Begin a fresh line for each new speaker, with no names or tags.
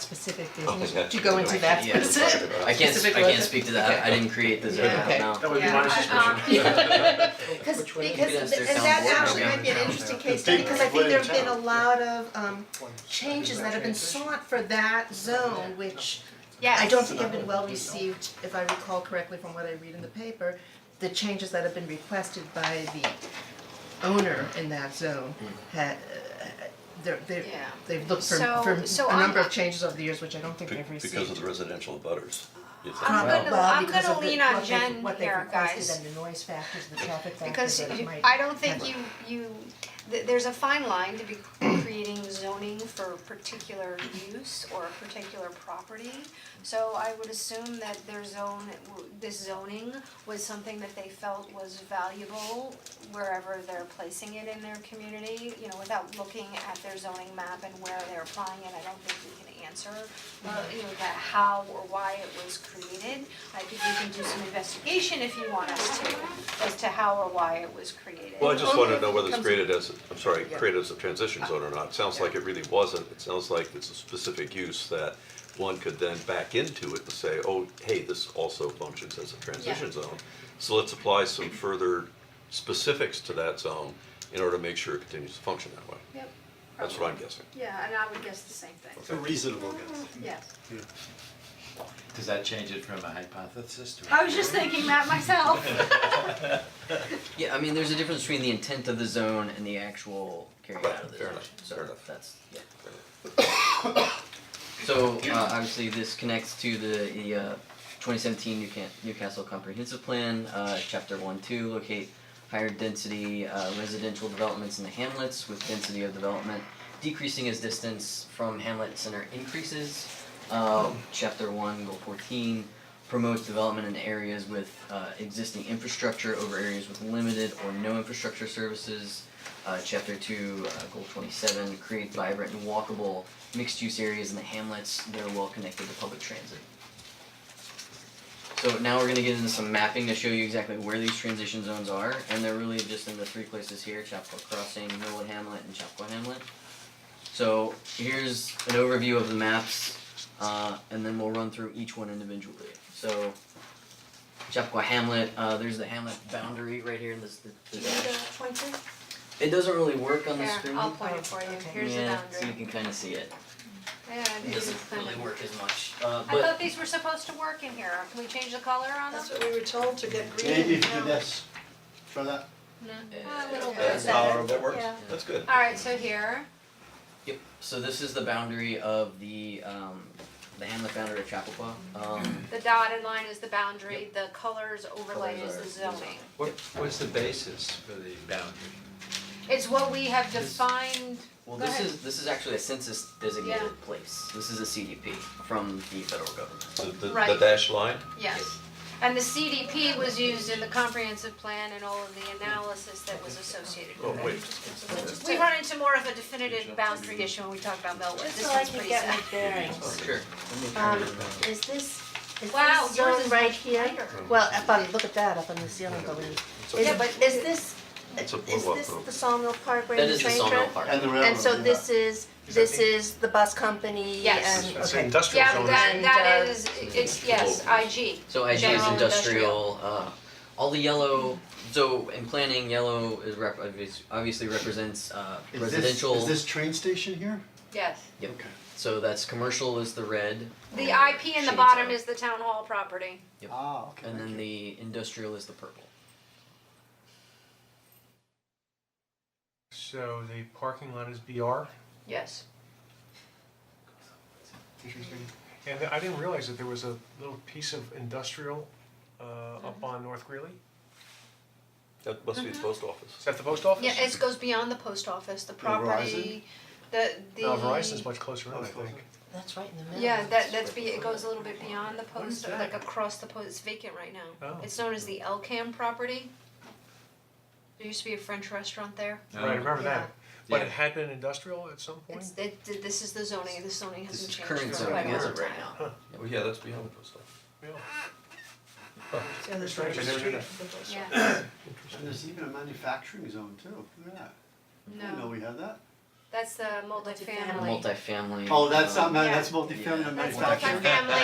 specific
don't think
is,
that's
to go into
really-
that
yeah.
specific.
I can't, I
specific
can't
list.
speak to that, I didn't create the zone
Yeah, okay.
no.
That would be
Yeah,
my suspicion.
I-
Because,
Which one is
because,
it?
th- and
Sound
that
board
actually
program.
might be an interesting case,
The big
because I think
one in
there have been a
town.
lot of um changes that have been sought for that zone, which I don't think have been well received, if I recall correctly from what I read in the paper, the changes that have been requested by the owner in that zone
Hmm.
had, they're, they
Yeah.
they've looked for,
So-
for
so
a number
I'm-
of changes over the years, which I don't think
Be-
they've received.
Because of the residential butters. you think?
I'm gonna,
Well,
I'm
because
gonna
of the-
lean on
what they've-
Jen here, guys,
What they've requested and the noise factors, the traffic factors
because
that it
you-
might.
I don't think
have.
you, you, th- there's a fine line to be creating zoning for a particular use or a particular property. So I would assume that their zone, this zoning was something that they felt was valuable wherever they're placing it in their community, you know, without looking at their zoning map and where they're applying it, I don't think we can answer uh, you know, that how or why it was created. I think we can do some investigation if you want us to, as to how or why it was created.
Well, I just wanna know whether it's
Comes-
created as, I'm sorry, created as a transition zone or not, it sounds like it really wasn't, it sounds like it's a specific use that one could then back into it to say, oh, hey, this also functions as a transition zone. So let's apply some further specifics to that zone in order to make sure it continues to function that way,
Yep.
that's what I'm guessing.
Yeah, and I would guess the same thing,
A reasonable guess.
yes.
Does that change it from a hypothesis to
was just thinking that myself.
Yeah, I mean, there's a difference between the intent of the zone and the actual carrying out of the
Fair
zone,
enough, fair
so
enough.
that's, yeah. So, uh, obviously, this connects to the, the, uh, twenty seventeen Newcastle Comprehensive Plan, uh, chapter one, two, locate higher density, uh, residential developments in the hamlets with density of development decreasing as distance from hamlet center increases. Uh, chapter one, goal fourteen, promotes development in areas with uh, existing infrastructure over areas with limited or no infrastructure services. Uh, chapter two, uh, goal twenty-seven, create vibrant and walkable mixed-use areas in the hamlets that are well connected to public transit. So now we're gonna get into some mapping to show you exactly where these transition zones are, and they're really just in the three places here, Chapel Crossing, Millwood Hamlet, and Chapel Hamlet. So here's an overview of the maps, uh, and then we'll run through each one individually. So Chappaqua Hamlet, uh, there's the Hamlet boundary right here in this, the, the dash. It doesn't really work on the
Here,
screen.
I'll point it for you,
Okay.
here's the
yeah, so you
boundary.
can kind of see it.
Yeah,
It
this
doesn't
is the-
really work as much, uh,
I
but
thought these were supposed to work in here, can we change the color on them?
That's what we were told to get green.
Maybe if you
now.
do this, for that.
Oh, A little bit.
That's
better.
tolerable, that works,
Uh, Yeah.
that's good.
Alright, so here,
Yep, so this is the boundary of the um the Hamlet boundary of Chappaqua. Um
the dotted line is the boundary, the colors overlay is the
Colors are-
zoning.
What, what's the basis for the boundary?
It's what we have defined,
well
Go
this
ahead.
is this is actually a census
Yeah.
designated place. This is a CDP from the federal government.
The- The, the
Right.
dashed line,
yes. And the CDP was used in the comprehensive plan and all of the analysis that was associated
oh,
with
wait,
it. We run into more of a definitive boundary issue when we talk about Millwood,
Just
this
so I
one's
can
pretty
get my
simple.
Oh,
bearings.
Sure.
Um, is this, is
Wow,
this
yours
zone
is
right
much
here?
bigger.
Well, if I look at that up on the ceiling, I believe. Is,
Yeah, but
is this, is
It's a boardwalk
this
road.
the Sawmill Park where
That
the
is the
train
Sawmill
track?
Park.
And the railroad.
And so this is,
Is that
this
big?
is the bus company
Yes.
and,
That's
okay.
industrial
Yeah,
zone.
that that
And, uh,
is, it's, yes, IG,
So IG is
General
industrial, uh, all the yellow, so in planning, yellow is rep, obvious- obviously represents uh
Is this-
residential.
Is this train station here?
yes.
Yep,
Okay.
so that's commercial is the red.
The IP in the
Shades
bottom
up.
is the town hall property.
Yep.
Ah, okay.
And then
thank you.
the industrial is the purple.
So the parking lot is BR,
Yes.
Interesting.
and I didn't realize that there was a little piece of industrial uh
Mm-hmm.
up on North Greeley.
that must be the post office.
Is that the post office?
Yeah, it goes beyond the post office, the
Verizon?
property, the the.
No, Verizon's much closer in, I
That's closer.
think.
That's right in the middle.
Yeah, that that's be, it goes a little bit beyond the
What is
post,
that?
like across the post, it's vacant right now.
Oh.
It's known as the Elcam property. There used to be a French restaurant there.
Right, I remember
Yeah.
that, but
Yeah.
it had been industrial at some point?
It's, it, this is the zoning, the zoning
This
hasn't
is
changed for
current
quite a
zoning as
long
of right
time.
now.
Oh, yeah, that's beyond the post office.
Yeah, that's
Strange, I never knew that.
Yeah,
And there's even a manufacturing zone too, look at that. Oh, I didn't know
no,
we had that.
That's the multifamily.
multifamily.
Oh, that's,
um,
not that's
Yeah.
multifamily
Yeah. um,
manufacturing.
That's multifamily